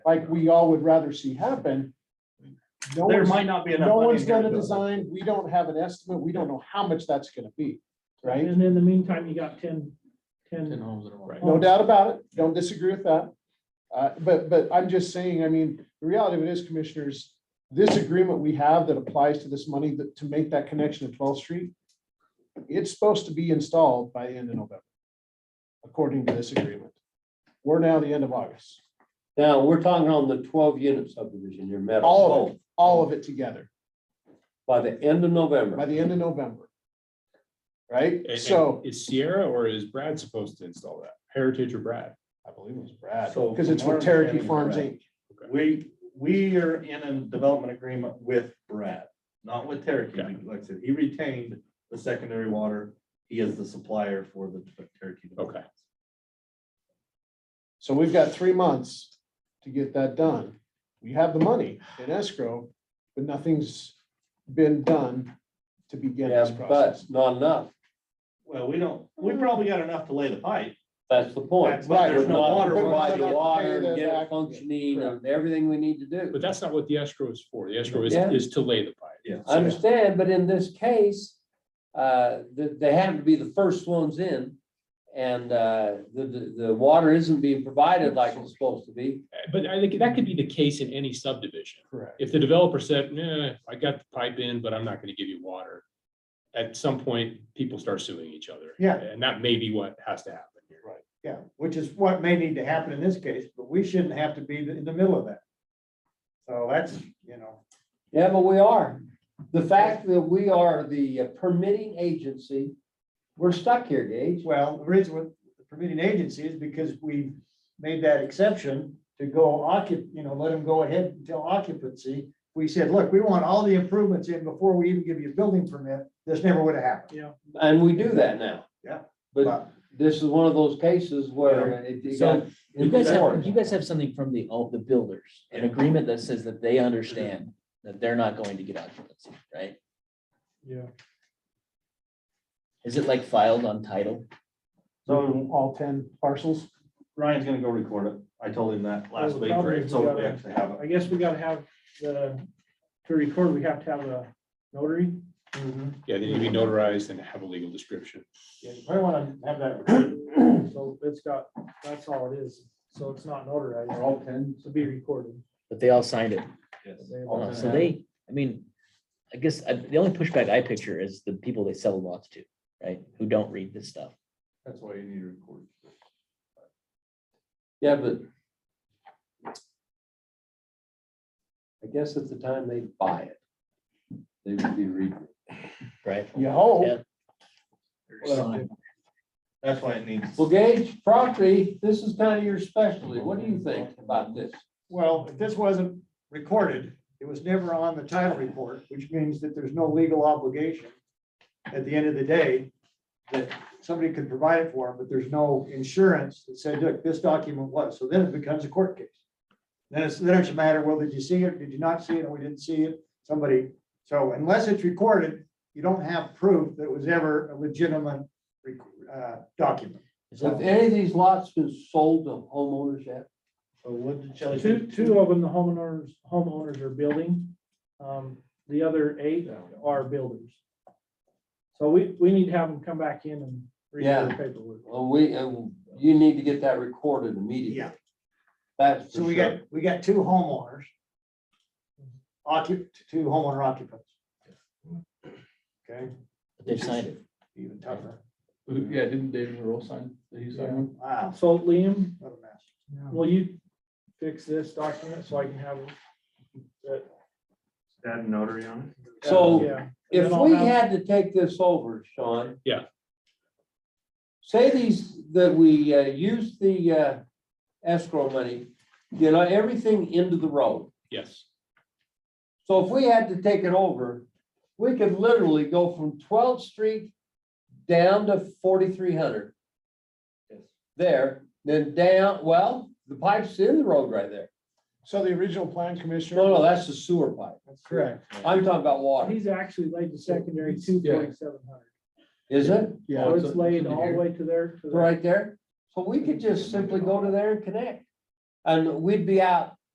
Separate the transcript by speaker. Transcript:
Speaker 1: like we all would rather see happen. No
Speaker 2: There
Speaker 1: one's,
Speaker 2: might not be enough.
Speaker 1: no
Speaker 2: money
Speaker 1: one's
Speaker 2: in there
Speaker 1: done a
Speaker 2: to do it.
Speaker 1: design, we don't have an estimate, we don't know how much that's gonna be, right?
Speaker 3: And in the meantime, you got ten,
Speaker 4: Ten
Speaker 3: ten,
Speaker 4: homes in a row.
Speaker 3: Right.
Speaker 1: No doubt about it, don't disagree with that. Uh, but, but I'm just saying, I mean, the reality of it is, commissioners, this agreement we have that applies to this money that, to make that connection to twelfth street, it's supposed to be installed by the end of November, according to this agreement. We're now the end of August,
Speaker 5: Now, we're talking on the twelve unit subdivision, your metal.
Speaker 1: All of all of it together,
Speaker 5: By the end of
Speaker 1: by
Speaker 5: November,
Speaker 1: the end of November. Right?
Speaker 6: And- and
Speaker 1: So,
Speaker 6: Is Sierra or is Brad supposed to install that? Heritage or Brad?
Speaker 1: I believe it was Brad,
Speaker 2: So
Speaker 1: because it's
Speaker 2: from our
Speaker 1: with Cherokee
Speaker 2: understanding,
Speaker 1: Farms Inc.
Speaker 2: Brad- We, we are in a development agreement with Brad, not with Cherokee. Like I said, he retained the secondary water. He is the supplier for the Cherokee.
Speaker 6: Okay.
Speaker 1: So we've got three months to get that done. We have the money in escrow, but nothing's been done to begin
Speaker 5: yeah,
Speaker 1: this
Speaker 5: but
Speaker 1: process.
Speaker 5: not enough.
Speaker 2: Well, we don't, we probably got enough to lay the pipe.
Speaker 5: That's the point.
Speaker 2: That's right.
Speaker 5: We're
Speaker 2: There's no
Speaker 5: not
Speaker 2: water.
Speaker 5: providing
Speaker 1: We're not
Speaker 5: water,
Speaker 1: paying
Speaker 5: and get
Speaker 1: that
Speaker 5: it
Speaker 1: back.
Speaker 5: functioning and everything we need to do.
Speaker 6: But that's not what the escrow is for. The escrow is,
Speaker 5: Yeah.
Speaker 6: is to lay the pipe.
Speaker 2: Yeah.
Speaker 5: I understand, but in this case, uh, they, they have to be the first ones in. And, uh, the, the, the water isn't being provided like it's supposed to be.
Speaker 6: Uh, But I think that could be the case in any subdivision.
Speaker 1: Correct.
Speaker 6: If the developer said, nah, I got the pipe in, but I'm not gonna give you water. At some point, people start suing each other.
Speaker 7: Yeah.
Speaker 6: And that may be what has to happen here.
Speaker 7: Yeah, which is what may need to happen in this case, but we shouldn't have to be in the middle of that. So that's, you know,
Speaker 5: Yeah, but we are. The fact that we are the permitting agency, we're stuck here, Gage.
Speaker 7: well, the reason with the permitting agency is because we made that exception to go occup, you know, let them go ahead until occupancy. We said, look, we want all the improvements in before we even give you a building permit. This never would have happened.
Speaker 3: yeah.
Speaker 5: And we do that now.
Speaker 7: Yeah.
Speaker 5: But this is one of those cases where it it got.
Speaker 8: You guys have,
Speaker 5: enforced.
Speaker 8: you guys have something from the, all the builders, an agreement that says that they understand that they're not going to get occupancy, right?
Speaker 3: Yeah.
Speaker 8: Is it like filed on title?
Speaker 1: So all ten parcels?
Speaker 2: Ryan's gonna go record it. I told him that last
Speaker 3: Well, the
Speaker 2: week,
Speaker 3: problem
Speaker 2: right?
Speaker 3: is
Speaker 2: so
Speaker 3: we
Speaker 2: we
Speaker 3: gotta-
Speaker 2: actually have it.
Speaker 3: I guess we gotta have the, to record, we have to have a notary.
Speaker 5: Mm-hmm.
Speaker 6: Yeah, they need to be notarized and have a legal description.
Speaker 7: Yeah, you probably want to have that.
Speaker 3: So it's got, that's all it is. So it's not notarized,
Speaker 7: ten.
Speaker 3: to be recorded.
Speaker 8: But they all signed it.
Speaker 2: Yes.
Speaker 8: Uh, So they, I mean, I guess I- the only pushback I picture is the people they sell lots to, right? Who don't read this stuff.
Speaker 2: That's why you need to record.
Speaker 5: Yeah, but. I guess at the time they buy it. They would be reading. it.
Speaker 8: Right.
Speaker 1: Yeah, oh,
Speaker 8: Yeah.
Speaker 2: Well, That's why it needs.
Speaker 5: Well, Gage, property, this is kind of your specialty. What do you think about this?
Speaker 7: Well, if this wasn't recorded, it was never on the title report, which means that there's no legal obligation at the end of the day that somebody could provide it for them, but there's no insurance that said, look, this document was. So then it becomes a court case. Then it's, then it's a matter, well, did you see it? Did you not see it? We didn't see it. Somebody, so unless it's recorded, you don't have proof that it was ever a legitimate rec- uh, document.
Speaker 5: Have any of these lots been sold to homeowners yet?
Speaker 2: So what did Shelley say?
Speaker 3: Two, two of them, the homeowners, homeowners are building. Um, the other eight are builders. So we, we need to have them come back in and read
Speaker 5: Yeah.
Speaker 3: their paperwork.
Speaker 5: Well, we, uh, you need to get that recorded immediately.
Speaker 7: Yeah.
Speaker 5: That's
Speaker 7: So
Speaker 5: for
Speaker 7: we
Speaker 5: sure.
Speaker 7: got, we got two homeowners. Occup, two homeowner occupants. Okay,
Speaker 8: But They've signed it.
Speaker 7: even tougher.
Speaker 4: Yeah, didn't David Rowe sign? Did he sign one?
Speaker 7: Wow,
Speaker 3: So Liam,
Speaker 7: what a mess.
Speaker 3: will you fix this document so I can have? it?
Speaker 2: Add a notary on it.
Speaker 5: So
Speaker 3: Yeah. And
Speaker 5: if
Speaker 3: then I'll
Speaker 5: we
Speaker 3: have-
Speaker 5: had to take this over, Sean.
Speaker 6: Yeah.
Speaker 5: Say these, that we uh, use the uh, escrow money, you know, everything into the road.
Speaker 6: Yes.
Speaker 5: So if we had to take it over, we could literally go from twelfth street down to forty-three hundred. There, then down, well, the pipe's in the road right there.
Speaker 1: so the original plan, Commissioner?
Speaker 5: No, no, that's the sewer pipe.
Speaker 1: Correct.
Speaker 5: I'm talking about water,
Speaker 3: He's actually laid the secondary two point seven hundred.
Speaker 5: is it?
Speaker 1: Yeah,
Speaker 3: So
Speaker 4: Oh,
Speaker 3: it's
Speaker 4: it's-
Speaker 3: laid
Speaker 4: it's in
Speaker 3: all the
Speaker 4: here.
Speaker 3: way to there. to there.
Speaker 5: Right there. So we could just simply go to there and connect. And we'd be out